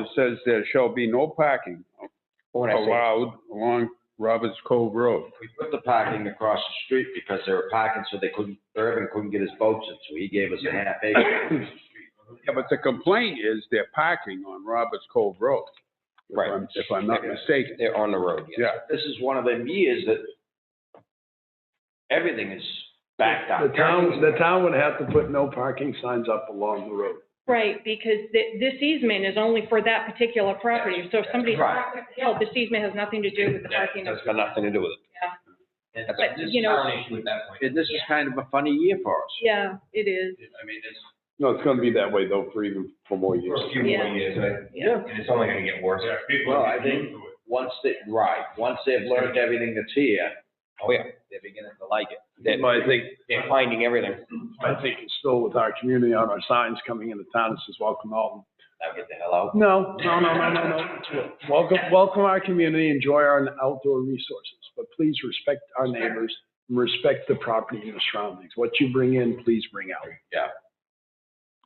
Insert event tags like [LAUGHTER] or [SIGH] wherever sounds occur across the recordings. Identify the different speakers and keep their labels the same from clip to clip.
Speaker 1: It says there shall be no parking
Speaker 2: When
Speaker 1: Oh,
Speaker 2: I say,
Speaker 1: allowed along Roberts Cove Road.
Speaker 2: we put the parking across the street because they were parking so they couldn't, Irvin couldn't get his boats in, so he gave us a half acre.
Speaker 1: Yeah, but the complaint is they're parking on Roberts Cove Road. if
Speaker 3: Right.
Speaker 1: I'm- If I'm not mistaken.
Speaker 3: They're on the road, yes.
Speaker 1: Yeah,
Speaker 2: This is one of them years that everything is backed up.
Speaker 4: The town, the town would have to put no parking signs up along the road.
Speaker 5: Right, because thi- this easement is only for that particular property, so if somebody's
Speaker 2: Right.
Speaker 5: held, this easement has nothing to do with the parking.
Speaker 3: That's got nothing to do with it.
Speaker 2: And
Speaker 3: That's
Speaker 5: But,
Speaker 2: this is
Speaker 5: you know-
Speaker 2: kind
Speaker 3: issue at that point.
Speaker 2: of- and this is kind of a funny year for us.
Speaker 5: Yeah, it is,
Speaker 3: I mean, it's
Speaker 4: No, it's gonna be that way though for even, for more years.
Speaker 3: few
Speaker 5: more
Speaker 3: years,
Speaker 5: yeah.
Speaker 3: and it's only gonna get worse.
Speaker 2: Well, I think, once they, right, once they've learned everything that's here,
Speaker 3: Oh, yeah, they're beginning to like it.
Speaker 4: But
Speaker 3: They're,
Speaker 4: I think,
Speaker 3: they're finding everything.
Speaker 4: I think it's still with our community on our signs coming into town, it says welcome Alton.
Speaker 2: now get the hell out.
Speaker 4: No, no, no, no, no, no. Welcome, welcome our community, enjoy our outdoor resources, but please respect our neighbors, and respect the property and the surroundings. What you bring in, please bring out.
Speaker 2: Yeah.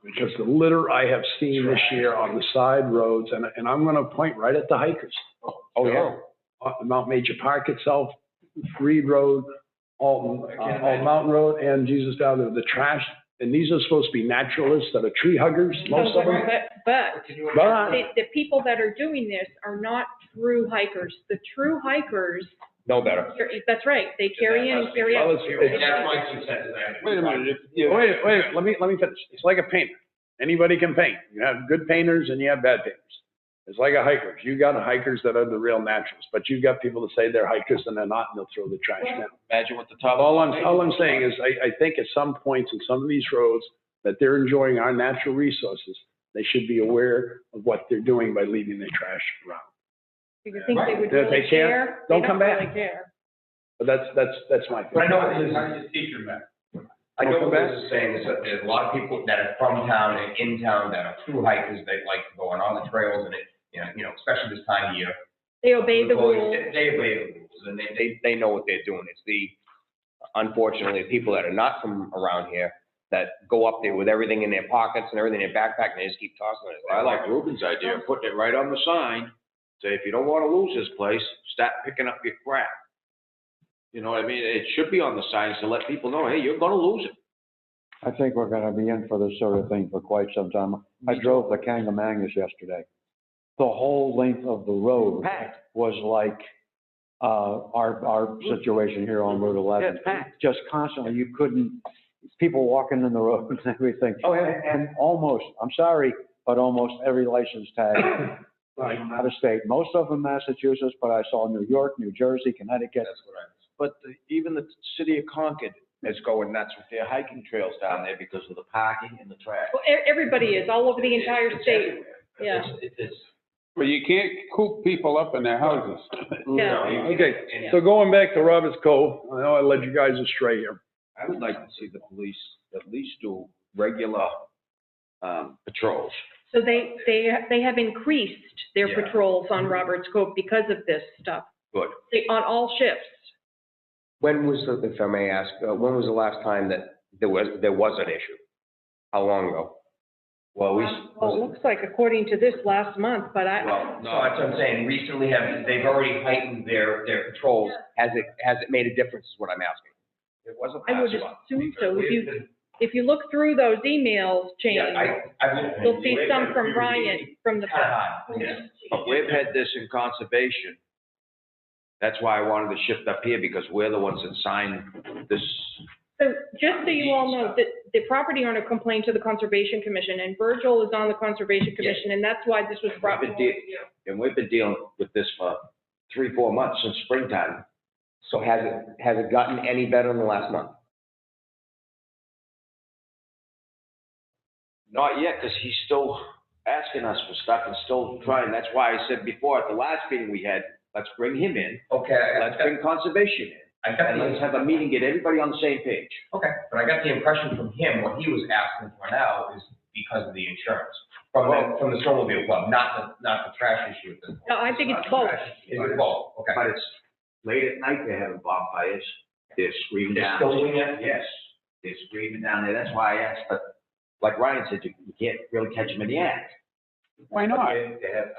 Speaker 4: Because the litter I have seen this year on the side roads, and, and I'm gonna point right at the hikers.
Speaker 3: Oh, yeah.
Speaker 4: uh, Mount Major Park itself, Reed Road, Alton, uh, Alton Mountain Road, and Jesus Valley, the trash. And these are supposed to be naturalists that are tree huggers, most of them.
Speaker 5: But, but
Speaker 4: But
Speaker 5: the, the people that are doing this are not true hikers. The true hikers,
Speaker 3: No better.
Speaker 5: that's right, they carry in, carry
Speaker 4: Well,
Speaker 5: out.
Speaker 4: it's- it's-
Speaker 3: my two cents.
Speaker 4: Wait a minute, if- yeah, wait, a- wait, a minute, let me, let me finish. It's like a painter. Anybody can paint. You have good painters and you have bad painters. It's like a hiker. You got hikers that are the real naturals, but you've got people that say they're hikers and they're not, and they'll throw the trash down.
Speaker 3: Imagine what the top.
Speaker 4: All I'm, all I'm saying is, I, I think at some points in some of these roads, that they're enjoying our natural resources. They should be aware of what they're doing by leaving their trash around.
Speaker 5: Do you think they would
Speaker 4: If they
Speaker 5: really
Speaker 4: can't,
Speaker 5: care? They
Speaker 4: don't come back.
Speaker 5: really care.
Speaker 4: But that's, that's, that's my.
Speaker 6: But I
Speaker 4: feeling.
Speaker 6: know what his, teacher meant. I know what Liz is saying, is that there's a lot of people that are from town and in town that are true hikers, they like to go on all the trails and it, you know, you know, especially this time of year.
Speaker 5: They obey the
Speaker 6: People,
Speaker 5: rules.
Speaker 6: they- They obey the rules and they, they,
Speaker 3: They, they know what they're doing. It's the, unfortunately, the people that are not from around here that go up there with everything in their pockets and everything in their backpack and they just keep tossing it.
Speaker 2: I like Ruben's idea, of putting it right on the sign, say, if you don't wanna lose this place, stop picking up your crap. You know what I mean? It should be on the signs to let people know, hey, you're gonna lose it.
Speaker 7: I think we're gonna be in for this sort of thing for quite some time. I drove the Kangamangas yesterday. The whole length of the road was like, uh, our, our situation here on Route eleven. Just constantly, you couldn't, people walking in the road and [LAUGHS] everything.
Speaker 3: Oh, yeah.
Speaker 7: And almost, I'm sorry, but almost every license
Speaker 3: [COUGHS]
Speaker 7: tag from out of state, most of them Massachusetts, but I saw New York, New Jersey, Connecticut.
Speaker 6: that's what I.
Speaker 2: But the- even the city of Concord is going nuts with their hiking trails down there because of the parking and the trash.
Speaker 5: Well, e- everybody is, all over the entire
Speaker 2: It's
Speaker 5: state.
Speaker 2: everywhere.
Speaker 5: yeah.
Speaker 2: It's- It's, it's,
Speaker 1: but you can't coop people up in their houses.
Speaker 5: Yeah.
Speaker 4: Okay, so going back to Roberts Cove, I know I led you guys astray here.
Speaker 2: I would like to see the police at least do regular, um, patrols.
Speaker 5: So they, they, they have increased their
Speaker 2: Yeah.
Speaker 5: patrols on Roberts Cove because of this stuff.
Speaker 2: Good.
Speaker 5: They- On all shifts.
Speaker 3: When was the, if I may ask, uh, when was the last time that there was, there was an issue? How long ago?
Speaker 2: Well, we,
Speaker 5: Um, Well, it looks like according to this last month, but I,
Speaker 2: well,
Speaker 6: No,
Speaker 2: no,
Speaker 6: that's what I'm saying, recently have, they've already heightened their, their patrols.
Speaker 3: Has it, has it made a difference is what I'm asking?
Speaker 6: It wasn't
Speaker 5: I would
Speaker 6: last month.
Speaker 5: assume so. If you,
Speaker 6: We've been-
Speaker 5: if you look through those emails, Jane,
Speaker 6: Yeah, I, I've. been-
Speaker 5: you'll see some from Brian, from the.
Speaker 6: Kinda high, yeah.
Speaker 2: But we've had this in conservation. That's why I wanted to shift up here, because we're the ones that signed this.
Speaker 5: So just so you all know, that the property owner complained to the Conservation Commission and Virgil is on the Conservation Commission and that's why this was brought
Speaker 2: We've been
Speaker 5: forward.
Speaker 2: de- And we've been dealing with this for three, four months since springtime.
Speaker 3: So has it, has it gotten any better in the last month?
Speaker 2: Not yet, because he's still asking us for stuff and still trying. That's why I said before, at the last meeting we had, let's bring him in,
Speaker 6: Okay,
Speaker 2: let's
Speaker 6: I-
Speaker 2: bring conservation in,
Speaker 6: I got
Speaker 2: and
Speaker 6: the,
Speaker 2: let's have a meeting, get everybody on the same page.
Speaker 6: okay, but I got the impression from him, what he was asking for now is because of the insurance. From the, from the snowmobile club, not the, not the trash issue at this point.
Speaker 5: No, I think it's both.
Speaker 6: Is it both? Okay.
Speaker 2: But it's late at night, they're having bonfires, they're screaming
Speaker 6: They're
Speaker 2: down.
Speaker 6: still doing it?
Speaker 2: Yes, they're screaming down there, that's why I asked, but like Ryan said, you you can't really catch them in the act.
Speaker 1: Why not?
Speaker 6: They have,